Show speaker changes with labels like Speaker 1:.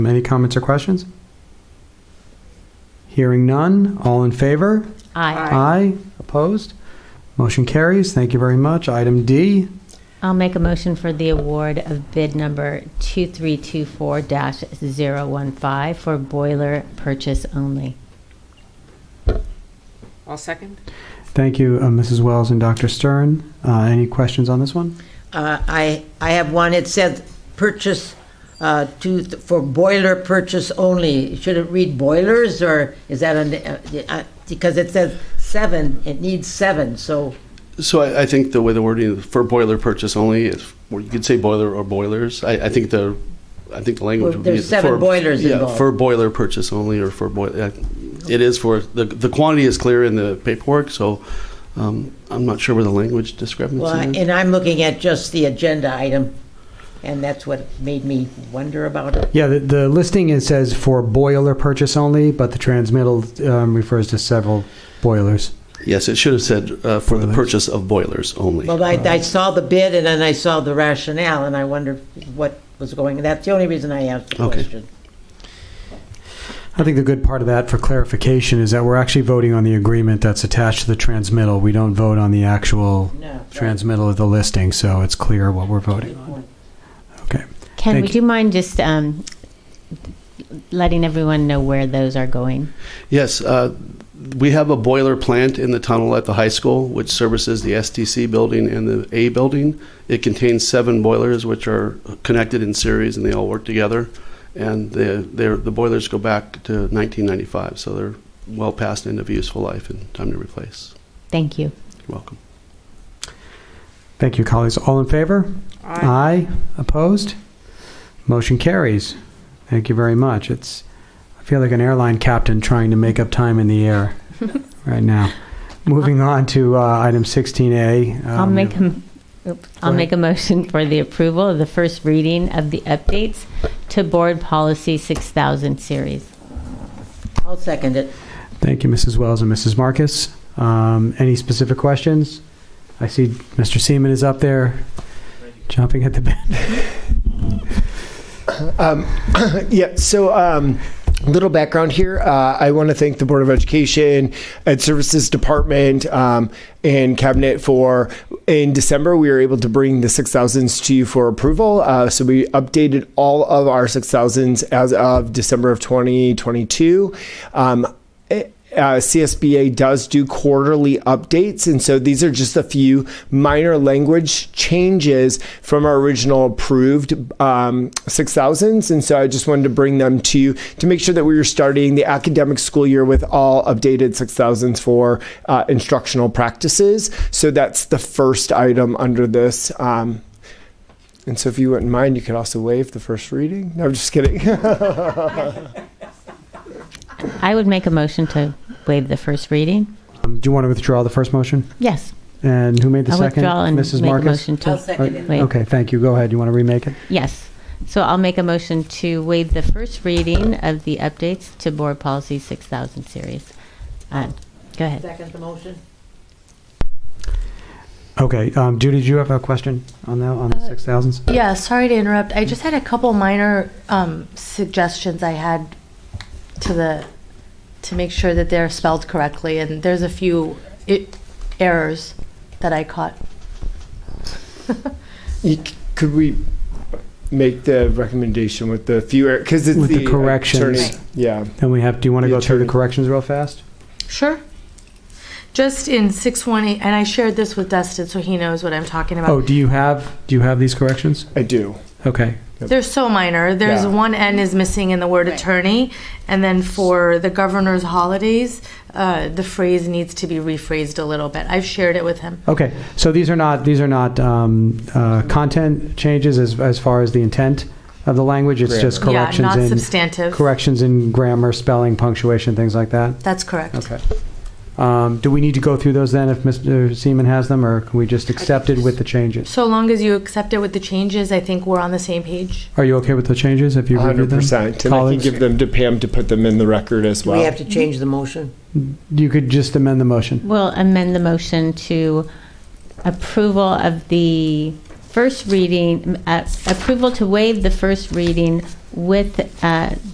Speaker 1: Any comments or questions? Hearing none, all in favor?
Speaker 2: Aye.
Speaker 1: Aye. Opposed? Motion carries. Thank you very much. Item D,
Speaker 2: I'll make a motion for the award of bid number 2324-015 for boiler purchase only.
Speaker 3: I'll second.
Speaker 1: thank you, uh, Mrs. Wells and Dr. Stern. Uh, Any questions on this one?
Speaker 4: Uh, I, I have one, it says purchase uh, to, for boiler purchase only. Should it read boilers, or is that, an- uh, uh, because it says seven, it needs seven, so,
Speaker 5: So I, I think the way the wording is for boiler purchase only, if, or you could say boiler or boilers. I, I think the, I think the language.
Speaker 4: Well,
Speaker 5: would be
Speaker 4: there's seven
Speaker 5: for-
Speaker 4: boilers
Speaker 5: yeah,
Speaker 4: involved.
Speaker 5: For boiler purchase only or for boiler, it is for, the, the quantity is clear in the paperwork, so um, I'm not sure where the language
Speaker 4: well,
Speaker 5: discrepancy is.
Speaker 4: and I'm looking at just the agenda item, and that's what made me wonder about it.
Speaker 1: Yeah, the- the listing, it says for boiler purchase only, but the transmittal um, refers to several boilers.
Speaker 5: Yes, it should have said uh, for the purchase of boilers only.
Speaker 4: Well, I, I saw the bid, and then I saw the rationale, and I wondered what was going, that's the only reason I asked the
Speaker 5: Okay.
Speaker 4: question.
Speaker 1: I think the good part of that for clarification is that we're actually voting on the agreement that's attached to the transmittal. We don't vote on the actual
Speaker 4: No.
Speaker 1: transmittal of the listing, so it's clear what we're voting on. Okay.
Speaker 2: Ken,
Speaker 1: Thank
Speaker 2: would
Speaker 1: you.
Speaker 2: you mind just um, letting everyone know where those are going?
Speaker 5: Yes, uh, we have a boiler plant in the tunnel at the high school, which services the STC building and the A building. It contains seven boilers, which are connected in series, and they all work together. And the they're, the boilers go back to 1995, so they're well past end of useful life and time to replace.
Speaker 2: Thank you.
Speaker 5: You're welcome.
Speaker 1: Thank you, colleagues. All in favor?
Speaker 3: Aye.
Speaker 1: Opposed? Motion carries. Thank you very much. It's, I feel like an airline captain trying to make up time in the air right now. Moving on to uh, item 16A.
Speaker 2: I'll
Speaker 1: um,
Speaker 2: make, a m- oops, I'll
Speaker 1: ahead.
Speaker 2: make a motion for the approval of the first reading of the updates to Board Policy 6000 series.
Speaker 4: I'll second it.
Speaker 1: Thank you, Mrs. Wells and Mrs. Marcus. Um, Any specific questions? I see Mr. Seaman is up there jumping at the bit.
Speaker 6: Um, yeah, so um, little background here. Uh, I want to thank the Board of Education and Services Department um, and Cabinet for in December we were able to bring the 6000s to you for approval. Uh, so we updated all of our 6000s as of December of 2022. Um, uh, CSBA does do quarterly updates. And so these are just a few minor language changes from our original approved um, 6000s. And so I just wanted to bring them to you to make sure that we were starting the academic school year with all updated 6000s for uh, instructional practices. So that's the first item under this. Um, and so if you wouldn't mind, you could also waive the first reading. No, I'm just kidding.
Speaker 2: I would make a motion to waive the first reading.
Speaker 1: Um, Do you want to withdraw the first motion?
Speaker 2: Yes.
Speaker 1: And who made the
Speaker 2: I
Speaker 1: second?
Speaker 2: withdraw and
Speaker 1: Mrs.
Speaker 2: make a
Speaker 1: Marcus?
Speaker 2: motion to.
Speaker 4: I'll second it.
Speaker 2: waive.
Speaker 1: Okay, thank you. Go ahead. You want to remake it?
Speaker 2: Yes. So I'll make a motion to waive the first reading of the updates to Board Policy 6000 series. Uh, Go ahead.
Speaker 4: Second the motion?
Speaker 1: Okay, um, Judy, do you have a question on that, on the
Speaker 7: Uh,
Speaker 1: 6,000s?
Speaker 7: Yeah, sorry to interrupt. I just had a couple minor um, suggestions I had to the, to make sure that they're spelled correctly, and there's a few i- errors that I caught.
Speaker 6: You c- Could we make the recommendation with the fewer, because it's
Speaker 1: With the
Speaker 6: the
Speaker 1: corrections.
Speaker 6: attorney-
Speaker 7: Right.
Speaker 6: Yeah.
Speaker 1: Then we have, do you want to
Speaker 6: The
Speaker 1: go through the
Speaker 6: attorney.
Speaker 1: corrections real fast?
Speaker 7: Sure. Just in 618, and I shared this with Dustin, so he knows what I'm talking about.
Speaker 1: Oh, do you have, do you have these corrections?
Speaker 6: I do.
Speaker 1: Okay.
Speaker 7: They're so minor. There's
Speaker 6: Yeah.
Speaker 7: one N is missing in the word attorney, and then for the governor's holidays, uh, the phrase needs to be rephrased a little bit. I've shared it with him.
Speaker 1: Okay, so these are not, these are not um, uh, content changes as, as far as the intent of the language? It's just
Speaker 7: Yeah,
Speaker 1: corrections
Speaker 7: not
Speaker 1: in,
Speaker 7: substantive.
Speaker 1: corrections in grammar, spelling, punctuation, things like that?
Speaker 7: That's correct.
Speaker 1: Okay. Um, Do we need to go through those then if Mr. Seaman has them, or can we just accept it with the changes?
Speaker 7: So long as you accept it with the changes, I think we're on the same page.
Speaker 1: Are you okay with the changes if you reviewed them?
Speaker 6: 100%. And I can
Speaker 1: Colleagues?
Speaker 6: give them to Pam to put them in the record as
Speaker 4: Do
Speaker 6: well.
Speaker 4: we have to change the motion?
Speaker 1: You could just amend the motion.
Speaker 2: We'll amend the motion to approval of the first reading, uh, approval to waive the first reading with uh,